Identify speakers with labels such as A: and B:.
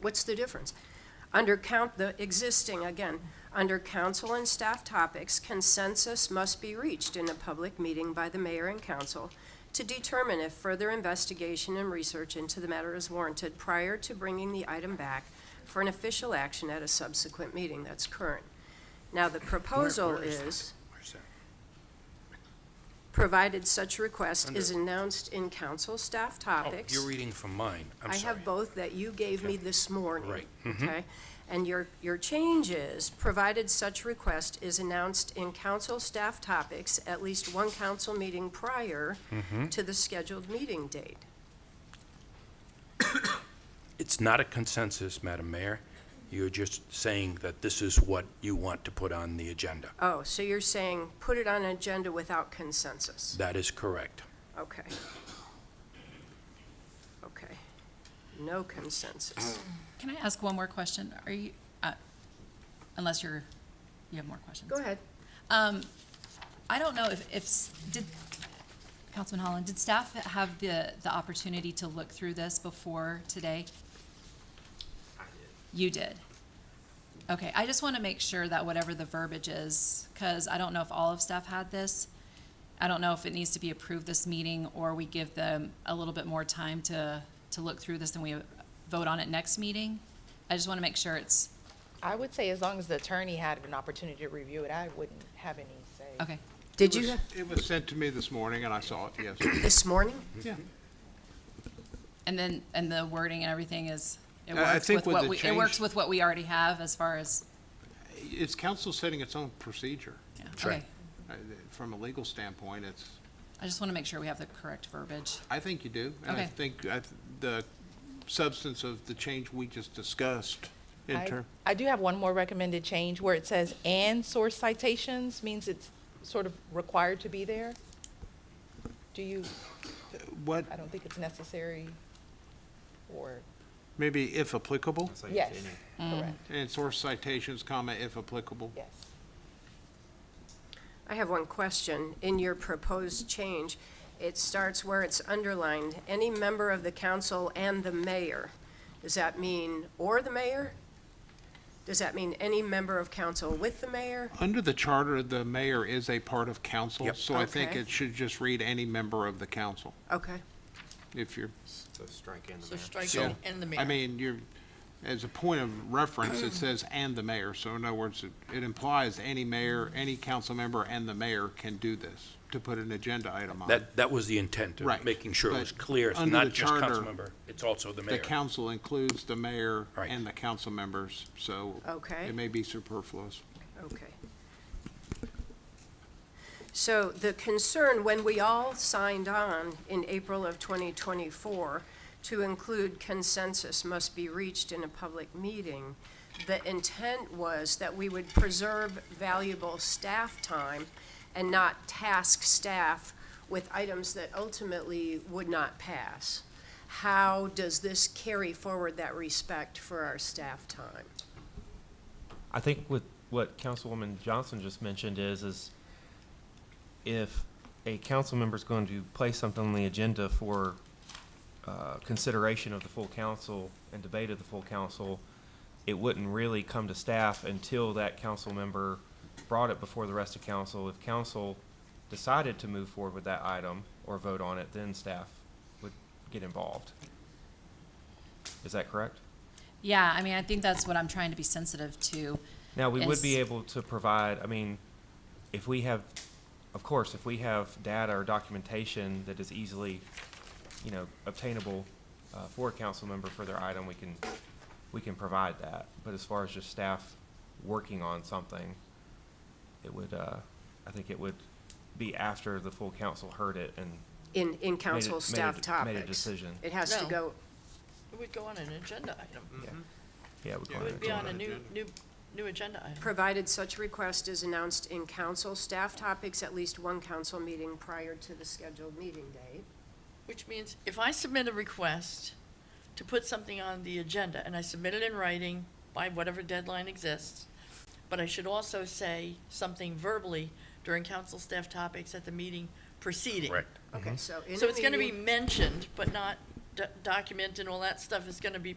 A: What's the difference? Under count, the existing, again, under council and staff topics, consensus must be reached in a public meeting by the mayor and council to determine if further investigation and research into the matter is warranted prior to bringing the item back for an official action at a subsequent meeting. That's current. Now, the proposal
B: Where- where is that?
A: is,
B: Where's that?
A: provided such request is
B: Under-
A: announced in council staff
B: Oh,
A: topics.
B: you're reading from mine, I'm
A: I
B: sorry.
A: have both that you gave me
B: Okay.
A: this morning.
B: Right. Mm-hmm.
A: Okay? And your, your change is, provided such request is announced in council staff topics at least one council meeting prior
B: Mm-hmm.
A: to the scheduled meeting date.
B: It's not a consensus, Madam Mayor. You're just saying that this is what you want to put on the agenda.
A: Oh, so you're saying, put it on an agenda without consensus?
B: That is correct.
A: Okay. Okay. No consensus.
C: Can I ask one more question? Are you, uh, unless you're, you have more questions?
A: Go ahead.
C: Um, I don't know if, if, s- did, Councilman Holland, did staff have the, the opportunity to look through this before today? You did? Okay, I just want to make sure that whatever the verbiage is, because I don't know if all of staff had this. I don't know if it needs to be approved this meeting, or we give them a little bit more time to, to look through this and we vote on it next meeting. I just want to make sure it's,
D: I would say as long as the attorney had an opportunity to review it, I wouldn't have any say.
C: okay.
A: Did you,
E: It was-
A: have
E: It was sent to me this morning, and I saw it, yes.
A: this morning?
E: Yeah.
C: And then, and the wording and everything is, it
E: I- I
C: works
E: think
C: with
E: with
C: what
E: the
C: we, it works
E: change-
C: with what we already have as far as,
E: It's council setting its own procedure.
C: yeah,
B: Sure.
C: okay.
E: Uh, From a legal standpoint, it's,
C: I just want to make sure we have the correct verbiage.
E: I think you do. And I
C: Okay.
E: think I th- the substance of the change we just discussed in
D: I-
E: term,
D: I do have one more recommended change where it says and source citations means it's sort of required to be there. Do you,
E: what,
D: I don't think it's necessary or,
E: maybe if applicable,
D: yes,
C: Mm.
D: correct,
E: and source citations, comma, if applicable.
D: yes.
A: I have one question. In your proposed change, it starts where it's underlined, any member of the council and the mayor. Does that mean or the mayor? Does that mean any member of council with the mayor?
E: Under the charter, the mayor is a part of council,
B: Yep.
E: so I think
A: Okay.
E: it should just read any member of the council,
A: Okay,
E: if you're
F: So strike in the
G: So
F: mayor.
G: strike
E: So,
G: in, in the mayor.
E: I mean, you're, as a point of reference, it says "and the mayor," so in other words, it- it implies any mayor, any council member, and the mayor can do this, to put an agenda item on.
B: That, that was the intent of
E: Uh, Right,
B: making sure it
E: but
B: was clear. It's
E: under the
B: not just
E: charter,
B: council member, it's also the
E: The
B: mayor.
E: council includes the mayor
B: Right.
E: and the council members, so
A: Okay.
E: it may be superfluous.
A: okay. So the concern, when we all signed on in April of 2024 to include consensus must be reached in a public meeting, the intent was that we would preserve valuable staff time and not task staff with items that ultimately would not pass. How does this carry forward that respect for our staff time?
H: I think with what Councilwoman Johnson just mentioned is, is if a council member is going to place something on the agenda for uh, consideration of the full council and debate of the full council, it wouldn't really come to staff until that council member brought it before the rest of council. If council decided to move forward with that item or vote on it, then staff would get involved. Is that correct?
C: Yeah, I mean, I think that's what I'm trying to be sensitive to.
H: Now, we would be
C: is-
H: able to provide, I mean, if we have, of course, if we have data or documentation that is easily, you know, obtainable uh, for a council member for their item, we can, we can provide that. But as far as just staff working on something, it would, uh, I think it would be after the full council heard it and
A: In, in council
H: made a-
A: staff topics?
H: made a decision.
A: It has to
G: No.
A: go,
G: It would go on an agenda item.
H: Yeah, we
E: Yeah,
G: It would be
E: it's
G: on
E: on
G: a
E: an
G: new,
E: agenda.
G: new, new agenda item.
A: provided such request is announced in council staff topics at least one council meeting prior to the scheduled meeting date.
G: Which means if I submit a request to put something on the agenda and I submit it in writing by whatever deadline exists, but I should also say something verbally during council staff topics at the meeting preceding.
B: Correct.
H: Mm-hmm.
A: Okay, so in a
G: So it's gonna be
A: meeting-
G: mentioned, but not d- documented and all that stuff is gonna be